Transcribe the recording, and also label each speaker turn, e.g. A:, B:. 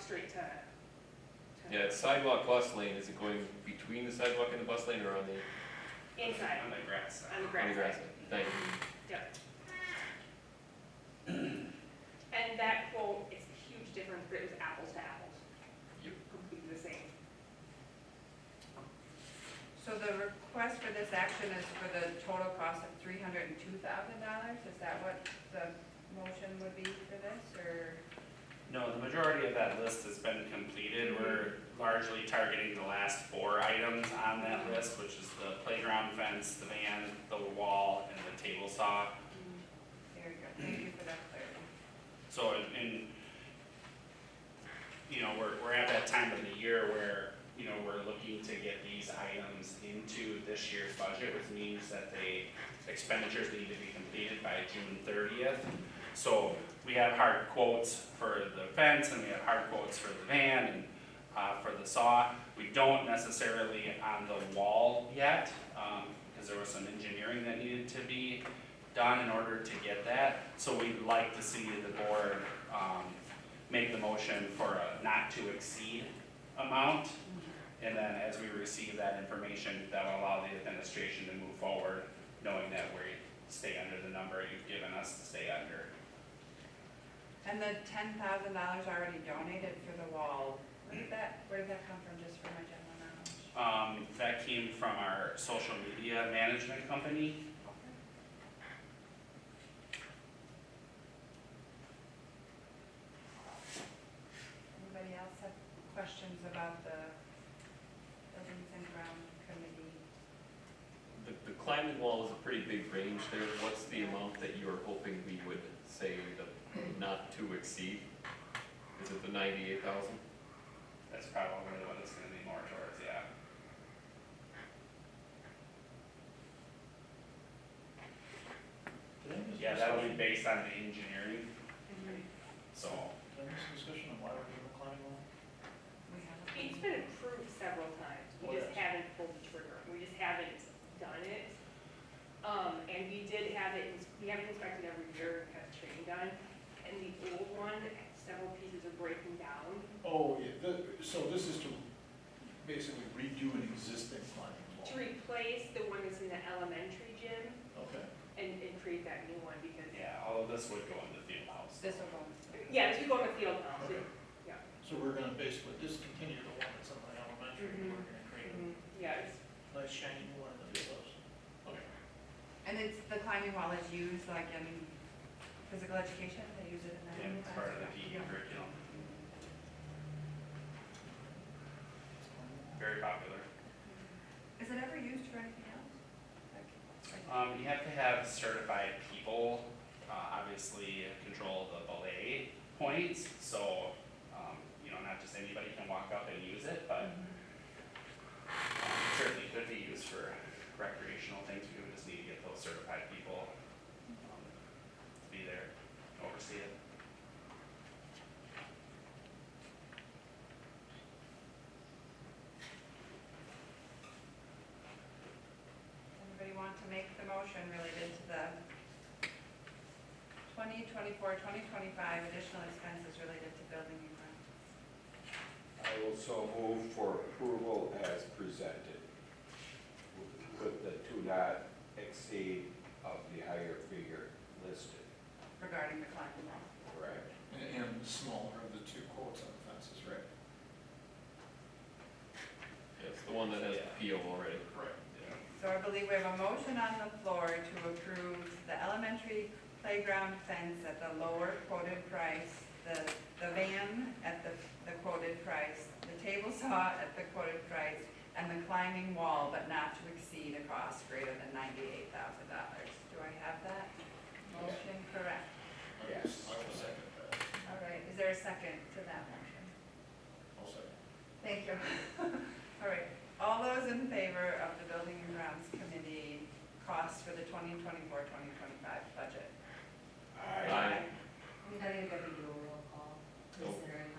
A: straight to. to-
B: Yeah, it's sidewalk bus lane, is it going between the sidewalk and the bus lane or on the,
A: Inside,
C: On the grass side.
A: on the
B: on the
A: grass.
B: grass?
A: side.
B: Thank you.
A: Yep. And that quote, it's a huge difference, but it was apples to apples.
B: Yep.
A: Completely the same.
D: So the request for this action is for the total cost of three hundred and two thousand dollars? Is that what the motion would be for this, or?
C: No, the majority of that list has been completed. We're largely targeting the last four items on that list, which is the playground fence, the van, the wall, and the table saw.
D: There you go, thank you for that clarity.
C: So, in- in, you know, we're, we're at that time of the year where, you know, we're looking to get these items into this year's budget, which means that they, expenditures need to be completed by June thirtieth. So, we have hard quotes for the fence, and we have hard quotes for the van, and, uh, for the saw. We don't necessarily on the wall yet, um, because there was some engineering that needed to be done in order to get that. So we'd like to see the board um, make the motion for a not to exceed amount. And then as we receive that information, that'll allow the administration to move forward, knowing that we stay under the number you've given us to stay under.
D: And the ten thousand dollars already donated for the wall, where did that, where did that come from, just for my general knowledge?
C: Um, That came from our social media management company.
D: Anybody else have questions about the buildings and ground committee?
B: The, the climbing wall is a pretty big range there, what's the amount that you're hoping we would say the not to exceed? Is it the ninety-eight thousand?
C: That's probably what it's gonna be more towards, yeah.
E: Did I miss
C: Yeah, that'll be
E: discussion?
C: based on the engineering,
B: Mm-hmm.
C: so.
E: Did I miss discussion on why we're doing the climbing wall?
D: We have a-
A: It's been approved several times,
E: Oh,
A: we just
E: yeah.
A: haven't pulled the trigger, we just haven't done it. Um, and we did have it, ins- we have it inspected every year, have training done, and the old one, several pieces are breaking down.
E: Oh, yeah, the, so this is to basically redo an existing climbing
A: To
B: Oh.
E: wall?
A: replace the one that's in the elementary gym
E: Okay.
A: and, and create that new one because,
C: Yeah, all of this would go in the field house.
D: This will go.
A: yeah, this would go on the field now, so-
E: Okay.
A: yeah.
E: So we're gonna basically discontinue the one that's in the elementary, and we're gonna create a
A: Mhm, Yeah, it's
E: nice shiny new one in the field house? Okay.
D: And it's, the climbing wall is used like in physical education, they use it in that.
C: Yeah, it's part of the E PE
D: Yeah.
C: curriculum, very popular.
D: Is it ever used for anything else? Like, like-
C: Um, you have to have certified people, uh, obviously control the belay points, so, um, you know, not just anybody can walk up and use it, but um, certainly could be used for recreational things, we would just need to get those certified people um, to be there, to oversee it.
D: Anybody want to make the motion related to the 2024, 2025 additional expenses related to building and grounds?
F: I will so move for approval as presented with the two not exceed of the higher figure listed,
D: regarding the climbing wall.
F: correct?
E: And- And the smaller of the two quotes on the fences, right?
B: Yes, the one that has the PO already.
E: Right.
D: So I believe we have a motion on the floor to approve the elementary playground fence at the lower quoted price, the, the van at the, the quoted price, the table saw at the quoted price, and the climbing wall, but not to exceed a cost greater than ninety-eight thousand dollars. Do I have that motion correct?
F: Yes.
E: I will second that.
D: All right, is there a second to that motion?
E: I'll second.
D: Thank you. All right, all those in favor of the Building and Grounds Committee costs for the 2024-2025 budget?
F: Aye.
B: Aye.
G: We gotta get a roll call,
B: Nope.
G: considering